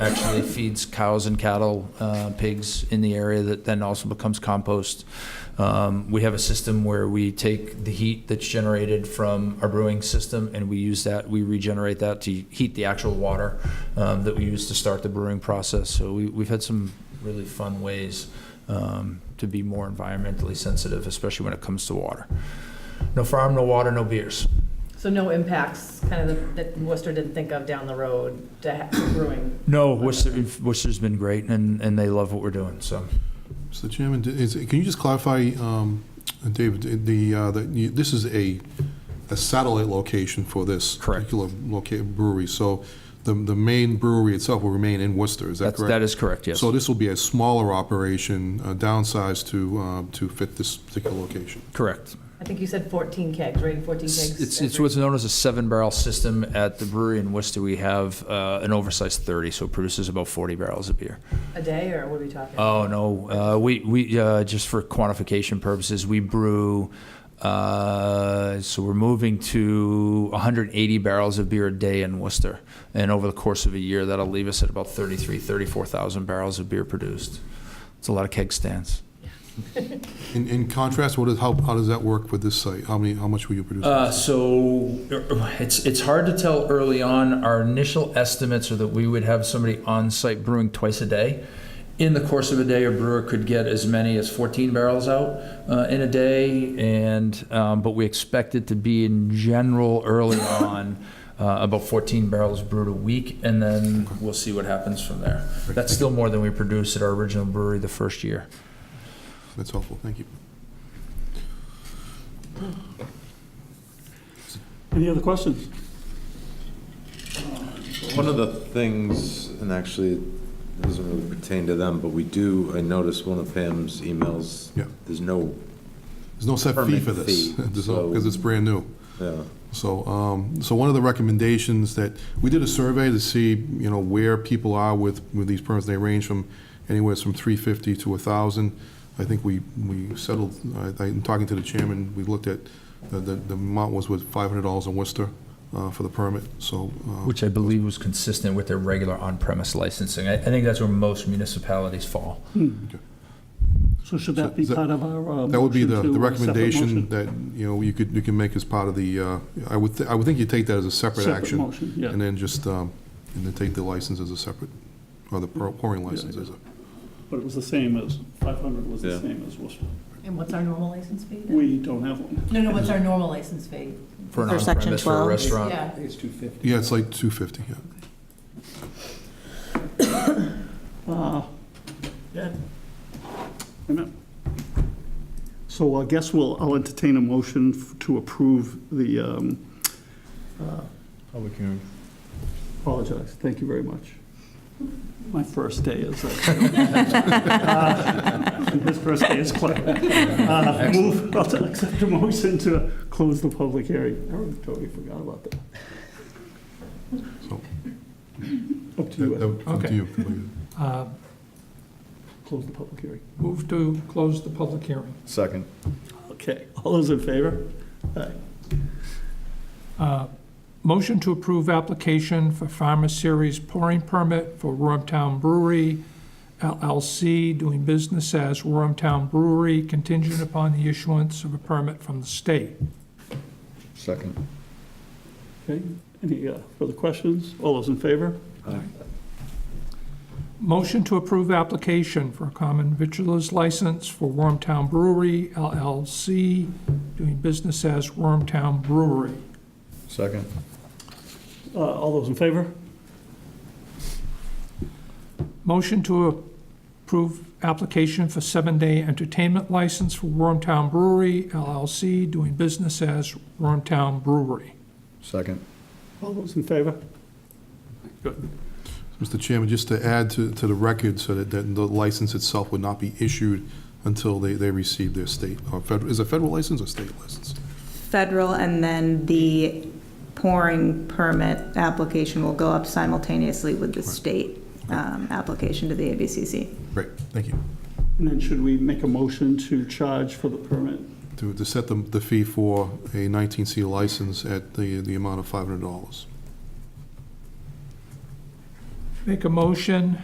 actually feeds cows and cattle, uh, pigs in the area that then also becomes compost. Um, We have a system where we take the heat that's generated from our brewing system and we use that, we regenerate that to heat the actual water um, that we use to start the brewing process. So we, we've had some really fun ways um, to be more environmentally sensitive, especially when it comes to water. No farm, no water, no beers. So no impacts, kind of that Worcester didn't think of down the road to ha- brewing? No, Worcester, Worcester's been great and, and they love what we're doing, so. So Chairman, d- is, can you just clarify, um, David, the, uh, the, you- this is a, a satellite location for this Correct. particular loca- brewery, so the, the main brewery itself will remain in Worcester, is that That's, correct? that is correct, yes. So this will be a smaller operation, uh, downsized to, uh, to fit this particular location? Correct. I think you said 14 kegs, right? 14 It's, kegs? it's every- what's known as a seven barrel system. At the brewery in Worcester, we have uh, an oversized 30, so it produces about 40 barrels of beer. A day, or what are we talking? Oh, no. Uh, we, we uh, just for quantification purposes, we brew, uh, so we're moving to 180 barrels of beer a day in Worcester. And over the course of a year, that'll leave us at about 33, 34,000 barrels of beer produced. It's a lot of keg stands. In, in contrast, what is, how, how does that work with this site? How many, how much will you produce? Uh, so it's it's hard to tell early on. Our initial estimates are that we would have somebody on site brewing twice a day. In the course of a day, a brewer could get as many as 14 barrels out uh, in a day, and um, but we expect it to be in general early on. Uh, about 14 barrels brewed a week, and then we'll see what happens from there. That's still more than we produced at our original brewery the first year. That's helpful, thank you. Any other questions? One of the things, and actually it doesn't really pertain to them, but we do, I noticed one of Pam's emails. Yeah. There's no, There's no set fee Permit for this, fee, so- because it's brand new. yeah, So, um, so one of the recommendations that, we did a survey to see, you know, where people are with, with these permits. They range from anywhere from 350 to 1,000. I think we, we settled, I, I'm talking to the chairman, we looked at, the, the the amount was with $500 in Worcester uh, for the permit, so. uh, which I believe was consistent with their regular on-premise licensing. I, I think that's where most municipalities fall. Hmm. So should that be So- part of our? uh, That would be the, motion to, the uh, separate recommendation motion? that, you know, you could, you can make as part of the, uh, I would, thi- I would think you'd take that as a separate Separate action. motion, yeah. And then just, um, and then take the license as a separate, or the pour- pouring license as a. But it was the same as, 500 was the Yeah. same as Worcester. And what's our normal license fee? then? We don't have one. No, no, what's our normal license fee? For an For Section on-premise for a 12. restaurant. Yeah, Yeah, it's like 250, yeah. Uh, yeah. Wait a minute. So I guess we'll, I'll entertain a motion f- to approve the, um, uh, public hearing. apologize, thank you very much. My first day is. uh, His first day is clear. Uh, Move, I'll t- accept a motion to close the public hearing. I already totally forgot about that. So- Up to That that you, would come to Okay. you. completely. Uh, Ed. close the public hearing. Move to close the public hearing. Second. Okay, all those in favor? Aye. Uh, Motion to approve application for Farmer Series pouring permit for Wormtown Brewery LLC doing business as Wormtown Brewery contingent upon the issuance of a permit from the state. Second. Okay, any uh, further questions? All those in favor? Motion to approve application for a common vitriol's license for Wormtown Brewery LLC doing business as Wormtown Brewery. Second. Uh, All those in favor? Motion to approve application for seven-day entertainment license for Wormtown Brewery LLC, doing business as Wormtown Brewery. Second. All those in favor? Good. Mr. Chairman, just to add to, to the record, so that, that the license itself would not be issued until they, they receive their state, or federal, is it federal license or state license? Federal, and then the pouring permit application will go up simultaneously with the state um, application to the ABCC. Great, thank you. And then should we make a motion to charge for the permit? To, to set the, the fee for a 19C license at the, the amount of $500. Make a motion